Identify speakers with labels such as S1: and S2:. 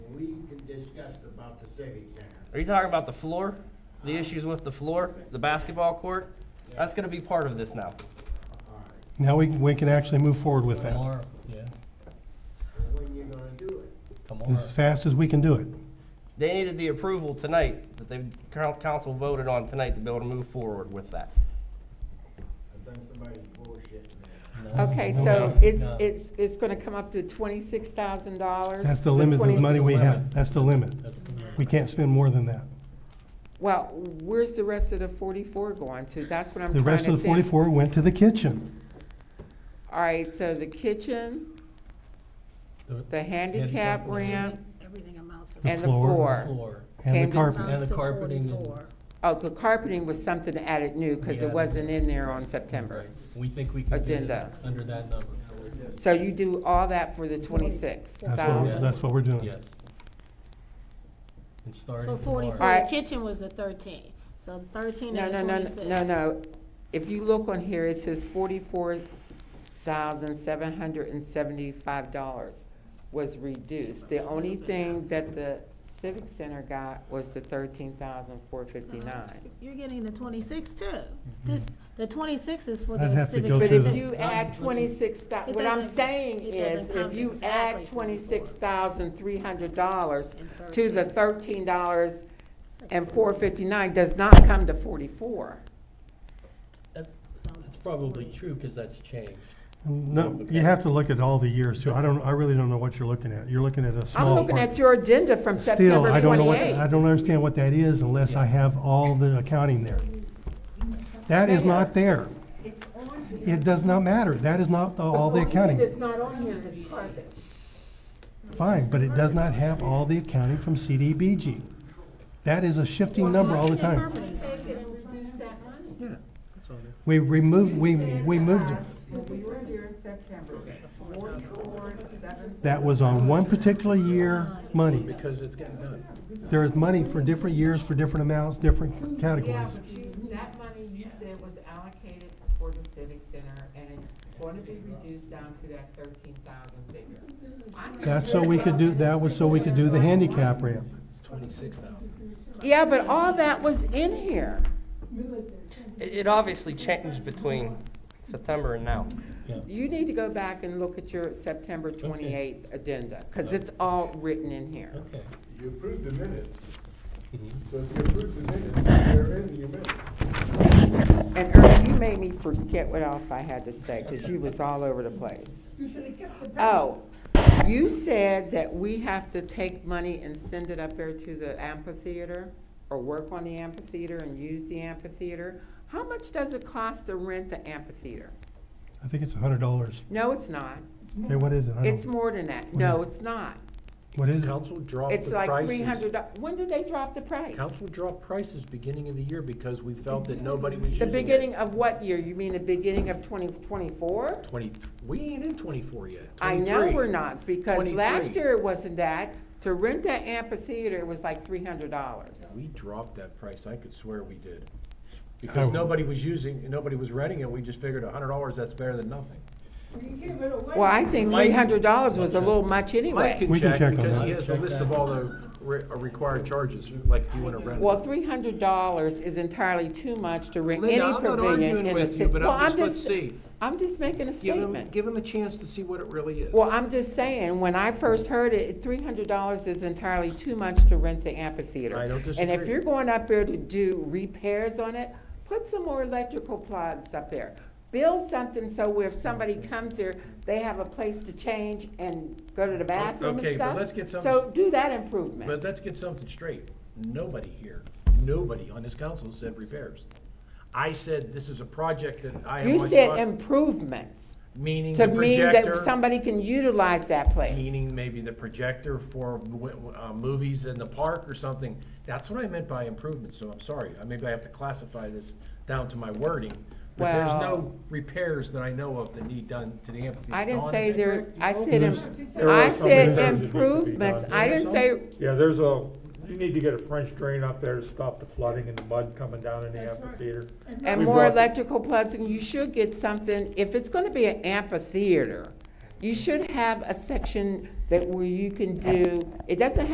S1: discussed about the civic center.
S2: Are you talking about the floor? The issues with the floor, the basketball court? That's gonna be part of this now.
S1: All right,
S3: Now we, we can actually move forward with that,
S4: Tomorrow, yeah,
S1: well, when you gonna do it?
S4: tomorrow.
S3: as fast as we can do it.
S2: They needed the approval tonight, that the council voted on tonight to be able to move forward with that.
S1: I think somebody's bullshitting me.
S5: Okay,
S3: No,
S5: so
S3: no,
S5: it's,
S4: no.
S5: it's, it's gonna come up to twenty-six thousand dollars?
S3: That's the limit of money we have, that's the limit.
S4: That's the
S3: We can't spend more than that.
S5: Well, where's the rest of the forty-four going to? That's what I'm trying to
S3: The
S5: think.
S3: rest of the forty-four went to the kitchen.
S5: All right, so the kitchen,
S4: the
S5: the handicap
S4: Handicap ramp.
S5: ramp,
S6: Everything amounts to.
S3: The
S5: and the
S3: floor.
S5: floor.
S4: floor.
S3: And
S5: Came
S3: the
S5: to-
S3: carpet,
S6: Amounts
S4: And the
S6: to
S4: carpeting and-
S6: 44.
S5: Oh, the carpeting was something added new, because
S4: Yeah.
S5: it wasn't in there on September.
S4: Right, we think we can get it
S5: Agenda.
S4: under that number,
S5: So you do all that for the twenty-six
S3: that's what, we're-
S5: thousand?
S3: that's what we're doing.
S4: yes. And starting
S6: So
S4: tomorrow.
S6: forty-four, kitchen was the thirteen, so the thirteen
S5: No,
S6: and the
S5: no, no, no,
S6: twenty-six.
S5: no, no. If you look on here, it says forty-four thousand seven hundred and seventy-five dollars was reduced. The only thing that the Civic Center got was the thirteen thousand four fifty-nine.
S6: You're getting the twenty-six too. This, the twenty-six is for
S3: I'd
S6: the
S3: have to
S6: civic.
S3: go
S6: center.
S5: But
S3: through
S5: if
S3: the-
S5: you add twenty-six
S6: It
S5: what I'm
S6: doesn't-
S5: saying
S6: it
S5: is,
S6: doesn't
S5: if
S6: come
S5: you
S6: exactly
S5: add
S6: 24.
S5: twenty-six thousand three hundred dollars
S6: And
S5: to the
S6: 13.
S5: thirteen dollars
S6: It's like-
S5: and four fifty-nine does not come to forty-four.
S4: That- That's probably true, because that's changed.
S3: No, you have to look at all the years too. I don't, I really don't know what you're looking at. You're looking at a
S5: I'm
S3: small
S5: looking
S3: part.
S5: at your agenda from
S3: Still, I
S5: September
S3: don't know what, I
S5: twenty-eighth.
S3: don't understand what that is unless I have all the accounting there. That is not there. It does not matter. That is not the- all the accounting.
S5: It's not on here, it's carpet.
S3: Fine, but it does not have all the accounting from CDBG. That is a shifting number all the time.
S5: Take it and reduce that money.
S4: Yeah, that's on there.
S3: We removed, we, we moved it.
S5: When we were here in September, four, four, seven.
S3: That was on one particular year money.
S7: Because it's getting done.
S3: There is money for different years, for different amounts, different
S5: Yeah,
S3: categories.
S5: but you, that money you said was allocated for the civic center and it's going to be reduced down to that thirteen thousand figure. I'm
S3: That's so we could do, that was so we could do the handicap ramp.
S7: It's twenty-six thousand.
S5: Yeah, but all that was in here.
S2: It, it obviously changed between September and now.
S5: You need to go back and look at your September twenty-eighth agenda, because it's all written in here.
S4: Okay.
S7: You approved the minutes,
S4: Mhm.
S7: so if you approved the minutes, they're in your minutes.
S5: And Earl, you made me forget what else I had to say, because you was all over the place. Oh, you said that we have to take money and send it up there to the amphitheater, or work on the amphitheater and use the amphitheater. How much does it cost to rent the amphitheater?
S3: I think it's a hundred dollars.
S5: No, it's not.
S3: Hey, what is it? I
S5: It's
S3: don't,
S5: more than that. No, it's not.
S3: what is it?
S7: Council dropped
S5: It's
S7: the
S5: like three
S7: prices.
S5: hundred, when did they drop the price?
S7: Council dropped prices beginning of the year because we felt that nobody was
S5: The
S7: using it.
S5: beginning of what year? You mean the beginning of twenty twenty-four?
S7: Twenty, we ain't in twenty-four yet,
S5: I
S7: twenty-three.
S5: know we're not, because last
S7: 23.
S5: year it wasn't that. To rent that amphitheater was like three hundred dollars.
S7: We dropped that price, I could swear we did.
S3: I-
S7: Because nobody was using, nobody was renting it, we just figured a hundred dollars, that's better than nothing.
S5: Well, I think
S7: Mike-
S5: three hundred dollars was a little much
S7: Mike
S5: anyway.
S7: can
S3: We can
S7: check,
S3: check on
S7: because
S3: that.
S7: he has a list of all the re- uh, required charges, like if you wanna rent.
S5: Well, three hundred dollars is entirely too much to rent
S7: Linda,
S5: any
S7: I'm not
S5: pavilion
S7: arguing
S5: in the
S7: with you,
S5: city.
S7: but I'm
S5: Well,
S7: just- let's see.
S5: I'm just making a
S7: Give him,
S5: statement.
S7: give him a chance to see what it really is.
S5: Well, I'm just saying, when I first heard it, three hundred dollars is entirely too much to rent the amphitheater.
S7: I don't
S5: And if
S7: disagree.
S5: you're going up there to do repairs on it, put some more electrical plugs up there. Build something so where if somebody comes there, they have a place to change and go to the bathroom and stuff.
S7: okay, but let's get some-
S5: So do that
S7: But
S5: improvement.
S7: let's get something straight. Nobody here, nobody on this council said repairs. I said this is a project that I am
S5: You
S7: on,
S5: said
S7: top,
S5: improvements,
S7: meaning the
S5: to mean that
S7: projector,
S5: somebody can utilize that place.
S7: meaning maybe the projector for w- w- uh, movies in the park or something. That's what I meant by improvements, so I'm sorry. I Maybe I have to classify this down to my wording. But there's
S5: Well-
S7: no repairs that I know of that need done to the amphitheater.
S5: I didn't
S7: Dawn,
S5: say
S7: is that
S5: there,
S7: correct?
S5: I said,
S3: There's-
S5: im-
S8: There
S5: I
S8: are some repairs
S5: said
S8: that need to be
S5: improvements,
S8: done.
S5: I didn't say,
S8: Yeah, there's a, you need to get a French drain up there to stop the flooding and the mud coming down in the amphitheater.
S5: and
S8: We
S5: more
S8: brought-
S5: electrical plugs, and you should get something, if it's gonna be an amphitheater, you should have a section that where you can do, it doesn't